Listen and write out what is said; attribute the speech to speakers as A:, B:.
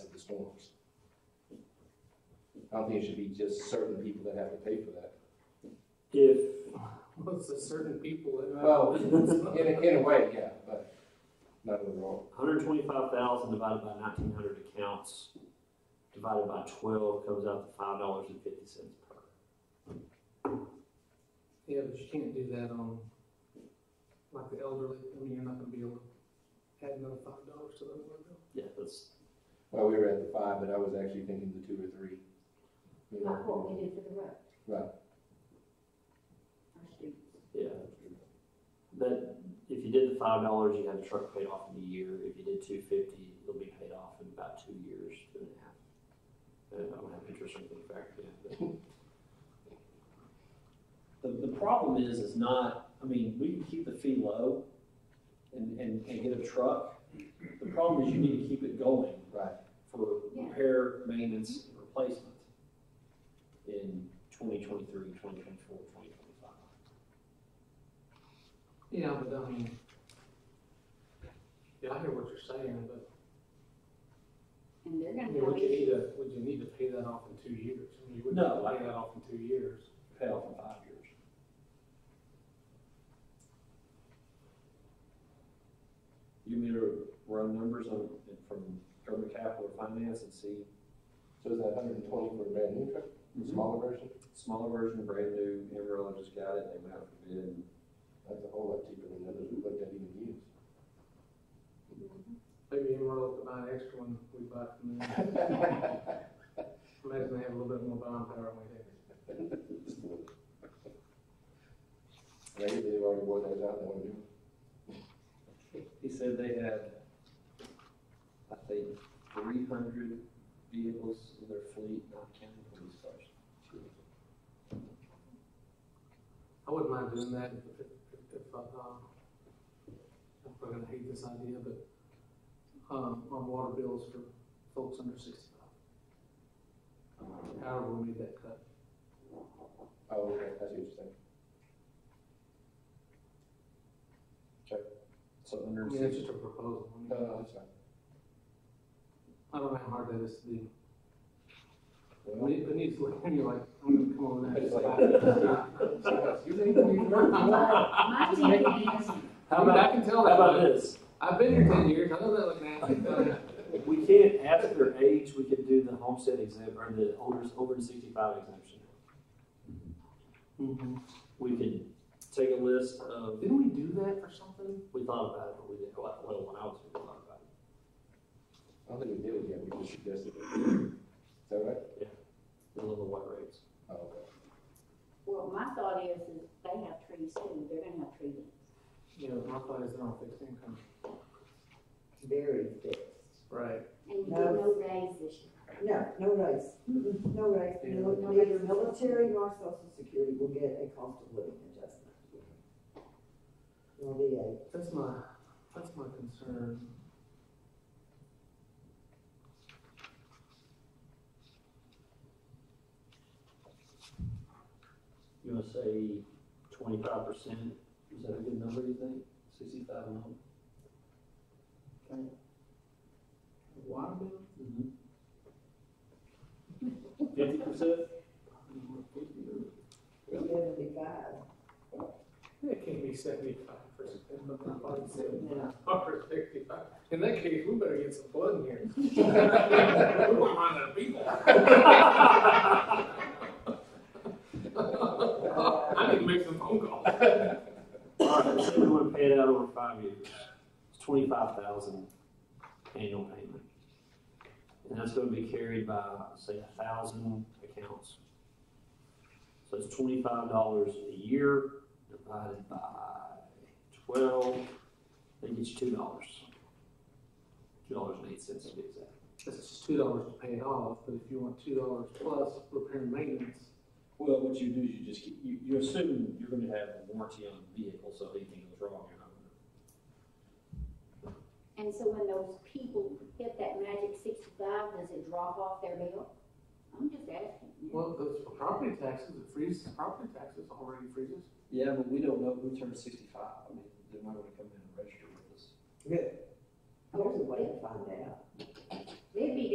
A: forms. I don't think it should be just certain people that have to pay for that.
B: If,
C: Well, it's a certain people that.
A: Well, in a, in a way, yeah, but not overall.
B: hundred twenty-five thousand divided by nineteen hundred accounts, divided by twelve, comes out to five dollars and fifty cents per.
C: Yeah, but you can't do that on, like the elderly, I mean, you're not gonna be able to add another five dollars to the other bill.
B: Yeah, that's,
A: Well, we were at the five, but I was actually thinking the two or three. You
D: Like what
A: know,
D: we did for the road.
A: Right.
D: Our students.
B: yeah, that, if you did the five dollars, you had the truck paid off in a year, if you did two fifty, it'll be paid off in about two years, two and a half. And I don't have interest or anything factored in, but.
E: The, the problem is, is not, I mean, we can keep the fee low and, and, and get a truck. The problem is you need to keep it going
A: Right,
E: for
D: Yeah.
E: repair, maintenance, and replacement in 2023, 2024, 2025.
C: Yeah, but I mean, yeah, I hear what you're saying, but,
D: And they're
C: I
D: gonna
C: mean, would you
D: pay,
C: need to, would you need to pay that off in two years? I mean, you wouldn't
E: No,
C: pay that off in two years.
E: Pay off in five years. You want me to run numbers on, from German Capital or Finance and see
A: so is that hundred and twenty for a brand new truck, the smaller version?
E: Smaller version, brand new, Amarillo just got it, they went out for bid, and
A: That's a whole lot cheaper than the others we looked at even used.
C: Maybe Amarillo could buy an extra one we buy from them. Imagine they have a little bit more buying power than we do.
A: Maybe they've already wore those out, they want new.
E: he said they had, I think, three hundred vehicles in their fleet, not counting police cars.
C: I wouldn't mind doing that if, if, if, if, uh, um, I'm probably gonna hate this idea, but, um, on water bills for folks under sixty-five. However, we made that cut.
A: Oh, okay, that's interesting.
E: So
C: I
E: under
C: mean, it's
E: six,
C: just a proposal. I mean,
A: No, no, that's fine.
C: I don't know how hard that is to do.
A: Well,
C: But
A: you
C: it it needs, to look- and you're like, I'm gonna come over there.
A: It's like- think you work?
D: my thinking is,
C: I mean, I can tell
B: How
C: that,
B: about
C: about it.
B: this?
C: I've been here ten years, I know that looking at
B: If we can't ask their age, we could do the homestead exempt, or the older, over sixty-five exemption.
C: me.
B: We could take a list of,
C: Didn't we do that for something?
B: we thought about it, but we didn't, well, well, when I was, here, we thought about it.
A: I don't think we did it yet, we just suggested it. Is that right?
B: The little white rates.
A: Oh, okay.
D: well, my thought is, is they have trees too, they're gonna have trees.
C: You know, my thought is they're on fixed income.
F: very fixed.
C: Right.
D: And you did
F: No.
D: no raise this year.
F: No, no raise, Mm-mm, no raise, No- neither military nor social security will get a cost of living adjustment. Nor VA.
C: That's my, that's my concern.
B: You wanna say twenty-five percent, is that a good number, you think? Sixty-five and up?
C: Water bill?
B: Fifty percent?
F: Seventy-five.
C: It can't be seventy-five percent, but my body
F: Yeah.
C: seventy-five or sixty-five. In that case, we better get some blood in here. We don't mind that people. I need to make some phone calls.
B: All right, so we wanna pay it out over five years, it's twenty-five thousand annual payment. And that's gonna be carried by, say, a thousand accounts. So it's twenty-five dollars a year divided by twelve, that gets you two dollars. Two dollars and eight cents to be exact.
C: This is two dollars to pay it off, but if you want two dollars plus repair and maintenance,
E: well, what you do is you just, keep- you, you assume you're gonna have a warranty on the vehicle, so if anything goes wrong, you're not gonna
D: And so when those people hit that magic sixty-five, does it drop off their bill? I'm just asking.
C: well, those for property taxes, it freezes, property taxes already freezes.
E: Yeah, but we don't know who turned sixty-five, I mean, they might wanna come in and register with us.
F: There's a way to find out.
D: They'd be